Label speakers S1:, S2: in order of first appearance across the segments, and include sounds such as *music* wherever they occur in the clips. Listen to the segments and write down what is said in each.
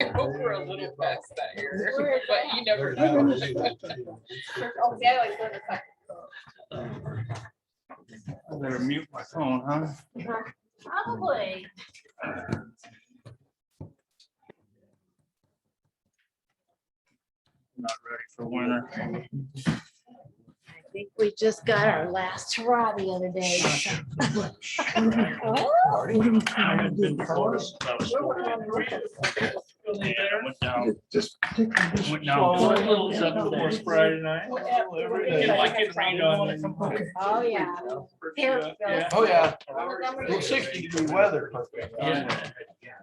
S1: *laughs* hope we're a little past that year,
S2: We're-
S1: *laughs* but you never know. *laughs*
S2: Oh, yeah, like, what the fuck?
S3: I'm gonna mute my phone, huh?
S2: Probably.
S3: Not ready for winter.
S2: I think we just got our last hurrah the other day. Oh.
S3: I had been told us about school. And it went down,
S4: Just.
S3: went down.
S5: Well, it was up to us Friday night.
S3: And like it rained on it.
S2: Oh, yeah. Terrible.
S5: Yeah.
S4: Oh, yeah,
S2: Montgomery.
S4: Well, sixty degree weather.
S3: Yeah.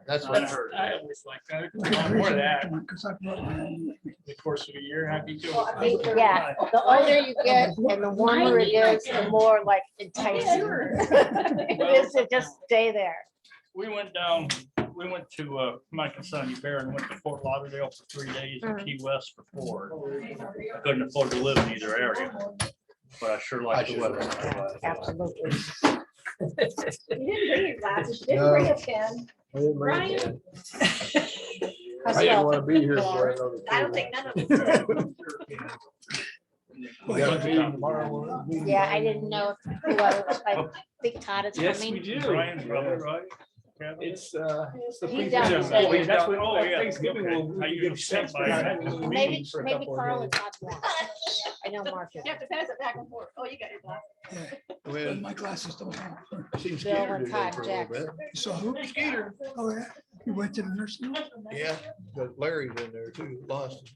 S4: That's
S5: I
S4: what I
S5: heard.
S4: heard.
S5: I always like that. More that. The course of a year, happy to.
S2: Yeah, the older you get and the warmer it is, the more like enticing. *laughs* It is to just stay there.
S3: We went down, we went to, uh, Mike and Sonny Bear and went to Fort Lauderdale for three days and Key West for four. I Couldn't afford to live in either area, but I sure
S4: I
S3: liked the
S4: should
S3: weather.
S4: have.
S2: Absolutely.
S6: You didn't bring your glasses, you
S4: No.
S6: didn't bring a pen. Brian.
S4: I didn't want to be here for another.
S6: I don't think none of us. did.
S4: We got a meeting tomorrow.
S2: Yeah, I didn't know if who I was, I think Todd is
S5: Oh. Yes, we
S2: coming.
S5: do.
S3: Brian's brother,
S5: right?
S3: It's,
S4: uh.
S2: He's down
S3: Yeah,
S2: to
S3: oh,
S2: say,
S3: he's down- oh, yeah, okay. I usually stand by that.
S2: Maybe, maybe Carl and Todd won't. I know Mark is.
S6: You have to pass it back and forth. Oh, you got your glasses.
S4: My glasses don't help. Seen Skeeter
S2: and
S4: do that
S2: Todd
S4: for a little bit.
S7: So who? Skeeter. Oh, yeah. You went to the nursing home?
S4: Yeah, but Larry's in there too, lost.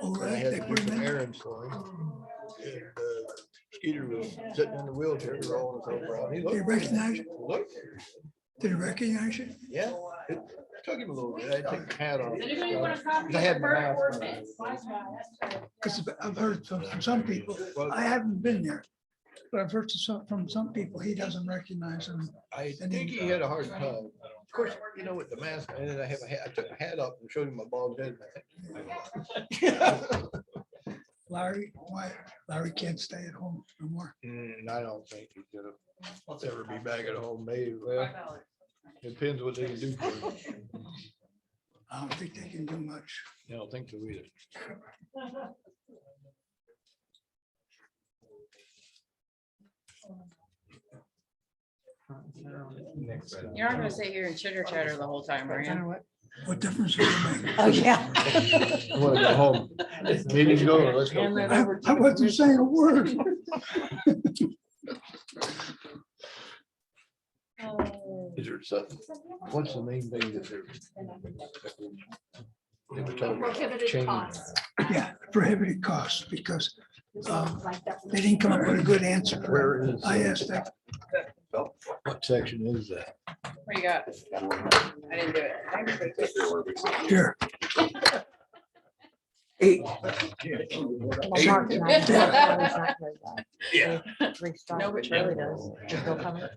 S7: Oh,
S4: And I
S7: right.
S4: had
S7: They
S4: to
S7: put
S4: do
S7: him
S4: some
S7: in.
S4: errands for him. And, uh, Skeeter was sitting in the wheelchair rolling his over out. He
S7: Did you
S4: looked-
S7: recognize, you?
S4: looked,
S7: did you recognize you?
S4: yeah, it took him a little bit. I took the hat off.
S6: copy?
S4: I had my mask on.
S7: Because I've heard from from some people,
S4: Well,
S7: I haven't been there, but I've heard some- from some people, he doesn't recognize them.
S4: I think he had a hard time. Of course, you know, with the mask, and then I have a hat, I took my hat up and showed him my bald head. and I think-
S7: Larry, why, Larry can't stay at home no more.
S4: Mm, I don't think he's gonna, I'll ever be back at home, maybe, well, depends what they can do. for him.
S7: I don't think they can do much.
S4: I don't think so either.
S1: You're not gonna sit here and chitter chatter the whole time, are you?
S7: What difference would it make?
S2: Oh, yeah.
S4: I wanna go home. Meeting's going, let's go.
S7: I I wasn't saying a word.
S6: Oh.
S4: Is there something, what's the main thing that they're? They were talking about
S6: Prohibited
S4: change.
S6: costs.
S7: Yeah, prohibited costs because um,
S6: Like that.
S7: they didn't come up with a good answer.
S4: Where is,
S7: I asked that
S4: what section is that?
S1: What you got? I didn't do it.
S7: Here. Eight.
S2: Mark and I- Carl's not very *laughs* well.
S5: Yeah.
S2: Restart.
S1: No, but Charlie does.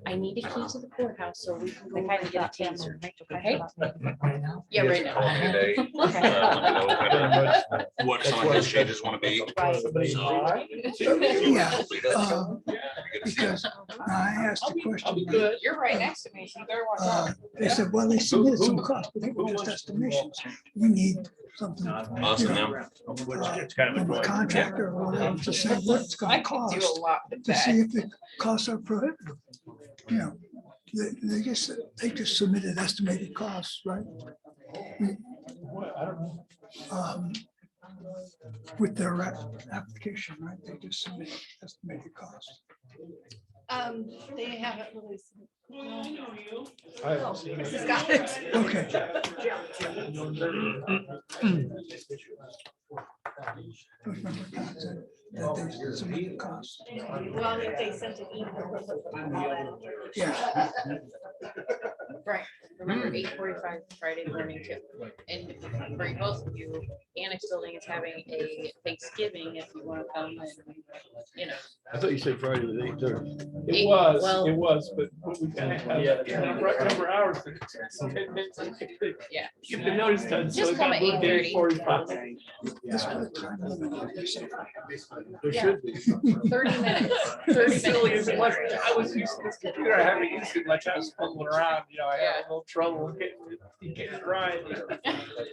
S2: I need a key to the courthouse so we can go. over that taser. Okay?
S1: Yeah, right now.
S4: *laughs*
S2: Okay.
S8: What
S4: That's
S8: some
S4: what-
S8: of the changes want to be.
S2: Right.
S1: *laughs*
S7: Yeah, um, because I asked the question.
S1: You're right next to me, so they're
S7: uh, They said, well, they submitted some costs, but they were just estimations. We need something.
S8: Us and them.
S3: It's kind of a
S7: From a
S3: joy.
S7: contractor or whatever to say what it's
S1: I
S7: gonna
S1: could do
S7: cost,
S1: a lot with
S7: to see
S1: that.
S7: if the costs are prohibitive. You know, they, they just, they just submitted estimated costs, right? Um, With their app- application, right, they just submitted estimated costs.
S6: Um, they haven't really.
S4: I haven't seen
S6: Chris has *laughs*
S4: it.
S6: got it.
S7: Okay, I remember Todd said that they submitted costs,
S6: Well, I think they sent an email.
S7: yeah.
S1: Right. Remember eight forty-five Friday morning too. And for both of you, Annex Building is having a Thanksgiving if you wanna come and, you know.
S4: I thought you said Friday was eight thirty.
S5: It was,
S1: Well-
S5: it was, but we kind of have a number number of hours.
S1: Yeah.
S5: Get the notice done. so
S1: Just
S5: it
S1: come
S5: got
S1: at
S5: moved to
S1: 8:30.
S5: 8:45. *laughs*
S7: That's what the time limit is.
S4: There
S1: Yeah.
S4: should be.
S1: Thirty minutes,
S5: Pretty
S1: thirty
S5: silly
S1: minutes.
S5: as it was. I was used to this computer. I haven't
S2: *laughs*
S5: used it much. I was fumbling around, you know, I had a little trouble getting, it- getting it right.